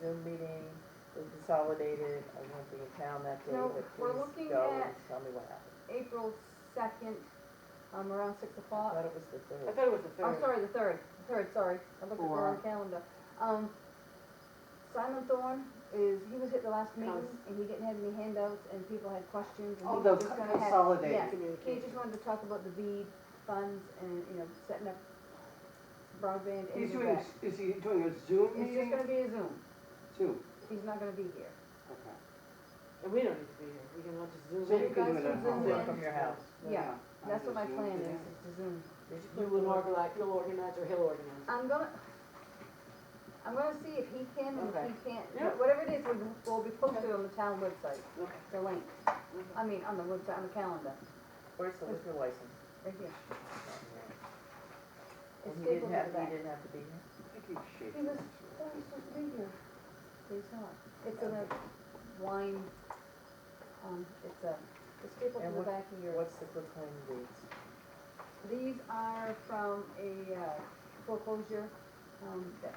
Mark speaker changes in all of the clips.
Speaker 1: Zoom meeting, we consolidated, I won't be in town that day,
Speaker 2: No,
Speaker 1: but
Speaker 2: we're
Speaker 1: please
Speaker 2: looking
Speaker 1: go
Speaker 2: at-
Speaker 1: and tell me what happened.
Speaker 2: April second, um, around six
Speaker 1: I
Speaker 2: o'clock.
Speaker 1: thought it was the
Speaker 3: I
Speaker 1: third.
Speaker 3: thought it was the third.
Speaker 2: I'm sorry, the third, the third, sorry, I looked at the wrong
Speaker 3: For-
Speaker 2: calendar. Um, Simon Thorne is, he was at the last meeting,
Speaker 3: Cons-
Speaker 2: and he didn't have any handouts, and people had questions, and he
Speaker 3: Oh,
Speaker 2: was
Speaker 3: the
Speaker 2: just gonna have.
Speaker 3: consolidated
Speaker 2: yeah, He
Speaker 3: communication.
Speaker 2: just wanted to talk about the bead funds and, you know, setting up broadband and
Speaker 3: He's
Speaker 2: the
Speaker 3: doing, a
Speaker 2: rest.
Speaker 3: s- is he doing a Zoom
Speaker 2: It's just
Speaker 3: meeting?
Speaker 2: gonna be a Zoom,
Speaker 3: Zoom,
Speaker 2: he's not gonna be here.
Speaker 3: okay.
Speaker 4: And we don't need to be here, we can all just zoom
Speaker 3: So
Speaker 4: in.
Speaker 3: you can do
Speaker 2: guys can
Speaker 3: it at
Speaker 2: zoom
Speaker 3: home.
Speaker 2: in.
Speaker 1: Work from your house.
Speaker 2: Yeah,
Speaker 3: I'll
Speaker 2: that's
Speaker 3: do
Speaker 2: what my
Speaker 3: Zoom
Speaker 2: plan
Speaker 3: today.
Speaker 2: is, is to Zoom.
Speaker 1: Did you
Speaker 4: You
Speaker 1: put
Speaker 4: will
Speaker 1: the-
Speaker 4: organize, you'll organize or he'll organize.
Speaker 2: I'm gonna, I'm gonna see if he can and if
Speaker 4: Okay.
Speaker 2: he can't,
Speaker 4: Yeah.
Speaker 2: whatever it is, we'll, we'll be posted on the town website,
Speaker 4: Okay.
Speaker 2: the link.
Speaker 1: Mm-hmm.
Speaker 2: I mean, on the website, on the calendar,
Speaker 1: Where's the liquor license?
Speaker 2: right here.
Speaker 1: And
Speaker 2: It's
Speaker 1: he
Speaker 2: stapled
Speaker 1: didn't
Speaker 2: to
Speaker 1: have,
Speaker 2: the
Speaker 1: he
Speaker 2: back.
Speaker 1: didn't have to be here?
Speaker 3: I think he's shaking.
Speaker 2: He was,
Speaker 3: his
Speaker 2: oh, he's supposed to be here. He's not. It's in a wine, um, it's a, it's stapled to
Speaker 1: And
Speaker 2: the
Speaker 1: what-
Speaker 2: back of your.
Speaker 1: What's the good claim deeds?
Speaker 2: These are from a uh, foreclosure, um, that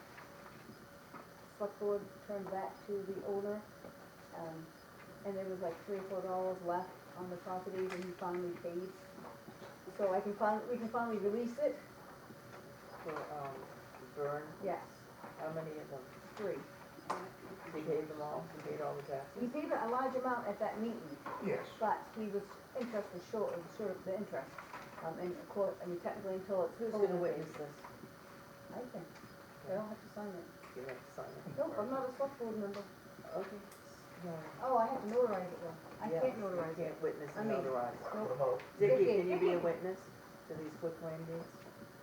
Speaker 2: select board turned back to the owner. Um, and there was like three or four dollars left on the property and he finally paid. So I can fin, we can finally release it,
Speaker 1: For, um, Vern,
Speaker 2: yes,
Speaker 1: how many of them?
Speaker 2: three.
Speaker 1: He gave them all, he paid all the taxes?
Speaker 2: He paid a large amount at that meeting,
Speaker 5: Yes.
Speaker 2: but he was, interest was short, of short of the interest. Um, and of course, I mean technically until it's.
Speaker 1: Who's
Speaker 2: fully
Speaker 1: gonna
Speaker 2: repaid.
Speaker 1: witness this?
Speaker 2: I can, they don't have to sign it.
Speaker 1: You have to sign it.
Speaker 2: Nope, I'm not a select board member.
Speaker 1: Okay. No.
Speaker 2: Oh, I have to notarize it though. I
Speaker 1: Yeah,
Speaker 2: can't
Speaker 1: you
Speaker 2: notarize it.
Speaker 1: Can't witness
Speaker 2: I
Speaker 1: and
Speaker 2: mean-
Speaker 1: notarize.
Speaker 5: What about,
Speaker 1: Dicky,
Speaker 2: Vicky,
Speaker 1: can you be a
Speaker 2: Vicky.
Speaker 1: witness to these quick claim deeds?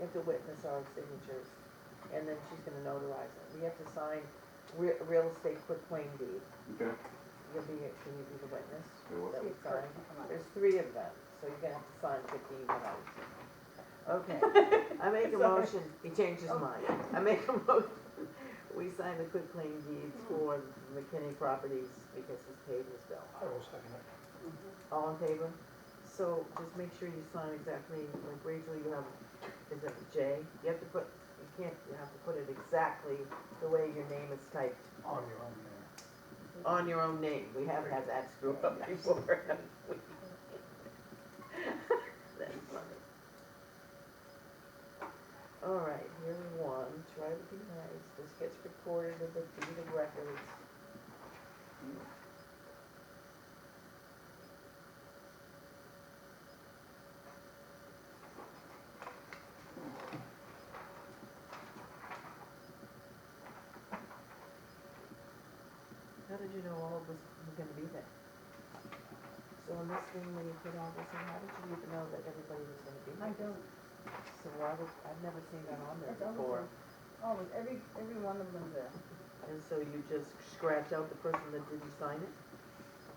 Speaker 1: You have to witness our signatures, and then she's gonna notarize it. We have to sign re- real estate quick claim deed.
Speaker 6: Okay,
Speaker 1: You'll be, can you be the witness?
Speaker 6: Sure.
Speaker 1: That we
Speaker 2: See if Kurt
Speaker 1: sign.
Speaker 2: can come up.
Speaker 1: Oh, There's three of them, so you're gonna have to sign fifteen of Okay, I make a
Speaker 4: Sorry.
Speaker 1: motion, he changed his
Speaker 2: Oh.
Speaker 1: mind. I make a motion, we sign the quick claim deeds for McKinney Properties because he's paid his bill.
Speaker 5: I will second it.
Speaker 1: All in favor? So just make sure you sign exactly, like Rachel, you have, is it J? You have to put, you can't, you have to put it exactly the way your name is typed,
Speaker 5: On your own, yeah.
Speaker 1: on your own name. We have had that screw up before. haven't we? That's funny. All right, here's one, try to be nice, this gets recorded with the deed of records. How did you know all of this was gonna be there? So in this thing, when you put all this in, how did you even know that everybody was gonna be
Speaker 2: I
Speaker 1: there?
Speaker 2: don't,
Speaker 1: So why would, I've never seen that on there
Speaker 2: It's on the
Speaker 1: before.
Speaker 2: front. always, every, every one of them there.
Speaker 1: And so you just scratch out the person that didn't sign it?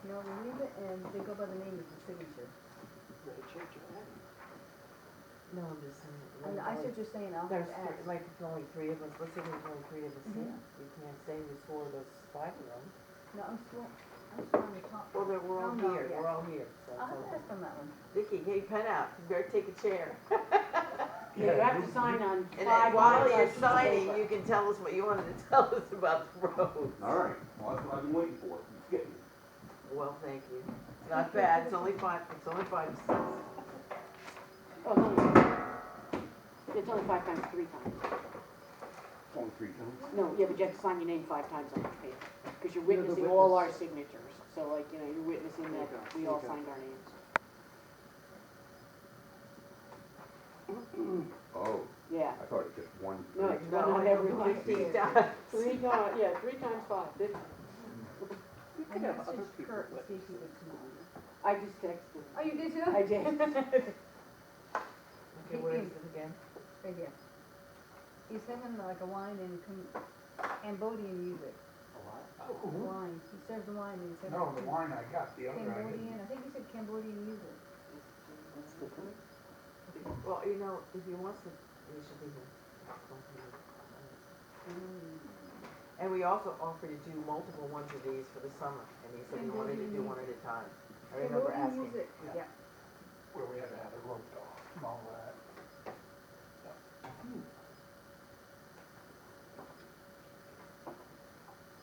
Speaker 2: You know, we leave it and they go by the name of the signature.
Speaker 3: Rachel, Joanne.
Speaker 1: No, I'm just saying.
Speaker 2: And
Speaker 1: like,
Speaker 2: I
Speaker 1: like,
Speaker 2: should just saying, I'll have
Speaker 1: There's,
Speaker 2: to
Speaker 1: thr-
Speaker 2: ask.
Speaker 1: like, if only three of us, let's say there's only three of us
Speaker 2: Mhm.
Speaker 1: here. You can't say there's four of us, five of them.
Speaker 2: No, I'm still, I'm still on the top.
Speaker 1: Well, then we're all
Speaker 2: Oh, No, no,
Speaker 1: here,
Speaker 2: yeah. Oh,
Speaker 1: we're all here, so.
Speaker 2: I'll have to ask them that one.
Speaker 1: Vicky, hey, pen out, you better take a chair.
Speaker 4: Yeah, you have to sign on
Speaker 1: And
Speaker 4: five
Speaker 1: then while you're
Speaker 4: pieces of
Speaker 1: signing,
Speaker 4: paper.
Speaker 1: you can tell us what you wanted to tell us about the road.
Speaker 6: all right, well, that's what I've been waiting for, it's getting,
Speaker 1: Well, thank you. It's Not bad, it's only five, it's only five, six.
Speaker 4: Oh, it's only, it's only five times, three times.
Speaker 6: it's only three times.
Speaker 4: No, yeah, but you have to sign your name five times on each paper, because you're
Speaker 3: You're the
Speaker 4: witnessing all our
Speaker 3: witness.
Speaker 4: signatures. So like, you know, you're witnessing
Speaker 3: There you
Speaker 4: that
Speaker 3: go,
Speaker 4: we
Speaker 3: there
Speaker 4: all
Speaker 3: you go.
Speaker 4: signed our names.
Speaker 6: Oh,
Speaker 4: Yeah.
Speaker 6: I thought it was just one.
Speaker 4: No,
Speaker 6: three.
Speaker 4: it's
Speaker 1: No,
Speaker 4: one on every one.
Speaker 1: Fifteen dollars.
Speaker 4: Three times, yeah, three times five, fifty.
Speaker 3: We
Speaker 2: I
Speaker 3: could have other
Speaker 2: messaged
Speaker 3: people
Speaker 2: Kurt and
Speaker 3: with.
Speaker 2: see if he would come on.
Speaker 4: I just texted.
Speaker 2: Oh, you did too?
Speaker 4: I did.
Speaker 1: Okay, what is it again?
Speaker 2: Right here. He's singing like a wine and Cam- Cambodian music, wine. He serves the wine and he serves.
Speaker 5: No, the wine I got, the other I didn't.
Speaker 2: Cambodian, I think he said Cambodian music.
Speaker 1: Well, you know, if he wants to, he should be here. And we also offered to do multiple ones of these for the summer, and he said he wanted to do one at a time. I remember
Speaker 2: Cambodian
Speaker 1: asking.
Speaker 2: music,
Speaker 5: Yeah.
Speaker 2: yeah.
Speaker 5: where we had to have it roped off and all that.